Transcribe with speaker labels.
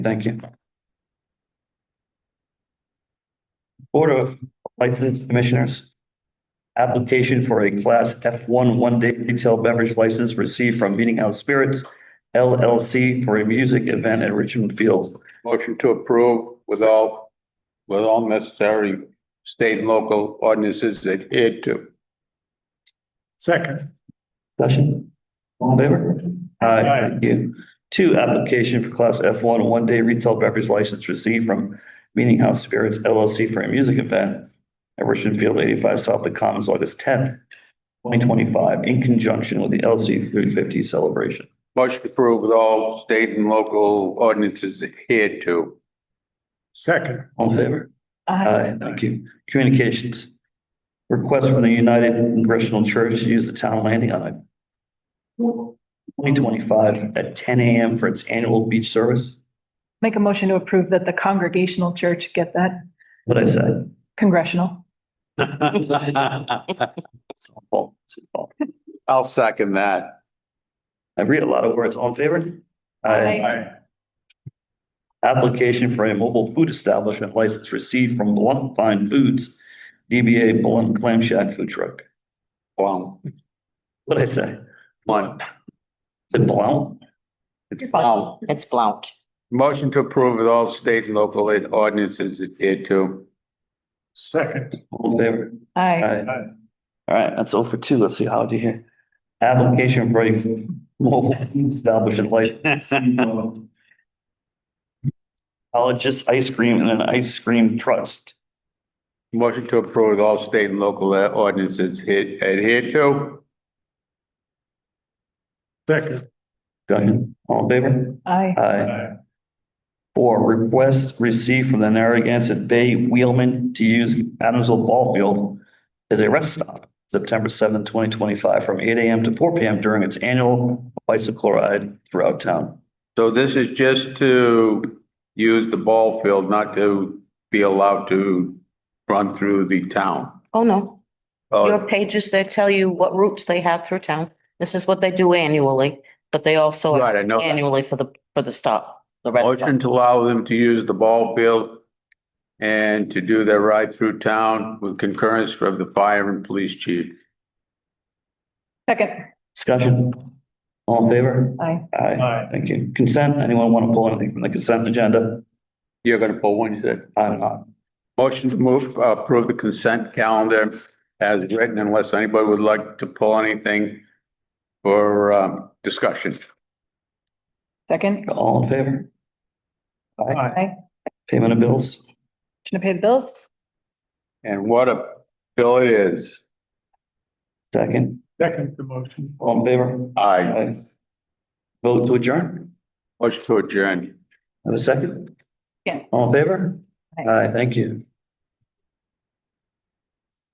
Speaker 1: Thank you. Board of License Commissioners. Application for a Class F one one-day retail beverage license received from Meeting House Spirits LLC for a music event at Richmond Fields.
Speaker 2: Motion to approve with all, with all necessary state and local ordinances adhered to.
Speaker 3: Second,
Speaker 1: Discussion? All in favor? Aye, thank you. Two, application for Class F one one-day retail beverage license received from Meeting House Spirits LLC for a music event at Richmond Field eighty-five South the Commons, August tenth, twenty twenty-five, in conjunction with the LC three fifty celebration.
Speaker 2: Motion to approve with all state and local ordinances adhered to.
Speaker 3: second,
Speaker 1: All in favor? Aye, thank you. Communications. Request from the United Congressional Church to use the town landing on twenty twenty-five at ten AM for its annual beach service.
Speaker 4: Make a motion to approve that the Congregational Church get that
Speaker 1: What I said.
Speaker 4: congressional.
Speaker 1: Softball, softball.
Speaker 2: I'll second that.
Speaker 1: I read a lot of words. All in favor? Aye. Application for a mobile food establishment license received from Blunt Fine Foods, DBA Blunt Clam Shack Food Truck.
Speaker 2: Plum,
Speaker 1: What'd I say?
Speaker 2: one,
Speaker 1: Is it Blount?
Speaker 2: it's plum.
Speaker 5: It's Blount.
Speaker 2: Motion to approve with all state and local ordinances adhered to.
Speaker 3: second,
Speaker 1: All in favor?
Speaker 4: Aye.
Speaker 1: Aye. All right, that's all for two. Let's see, how do you hear? Application for a mobile food establishment license. College's Ice Cream and an Ice Cream Trust.
Speaker 2: Motion to approve with all state and local ordinances adhe- adhered to.
Speaker 3: second.
Speaker 1: Done. All in favor?
Speaker 4: Aye.
Speaker 1: Aye. Four, request received from the Narragansett Bay Wheelman to use Adamsville Ball Field as a rest stop, September seventh, twenty twenty-five, from eight AM to four PM during its annual bicycle ride throughout town.
Speaker 2: So this is just to use the ball field, not to be allowed to run through the town.
Speaker 5: Oh, no. Your
Speaker 2: Oh,
Speaker 5: pages, they tell you what routes they have through town. This is what they do annually, but they also
Speaker 2: right, Oh, I know. that.
Speaker 5: annually for the, for the stop, the red.
Speaker 2: Motion to allow them to use the ball field and to do their ride through town with concurrence from the fire and police chief.
Speaker 4: Second.
Speaker 1: Discussion? All in favor?
Speaker 4: Aye.
Speaker 1: Aye.
Speaker 3: Aye.
Speaker 1: Thank you. Consent, anyone want to pull anything from the consent agenda?
Speaker 2: You're gonna pull one, you said?
Speaker 1: I'm not.
Speaker 2: Motion to move, uh, approve the consent calendar as written unless anybody would like to pull anything for, um, discussion.
Speaker 4: Second.
Speaker 1: All in favor?
Speaker 3: Aye.
Speaker 4: Aye.
Speaker 1: Payment of bills?
Speaker 4: Motion to pay the bills.
Speaker 2: And what a bill it is.
Speaker 1: Second.
Speaker 3: Second the motion.
Speaker 1: All in favor?
Speaker 2: Aye.
Speaker 1: Aye. Vote to adjourn?
Speaker 2: Motion to adjourn.
Speaker 1: Have a second?
Speaker 4: Yeah.
Speaker 1: All in favor?
Speaker 4: Aye.
Speaker 1: Aye, thank you.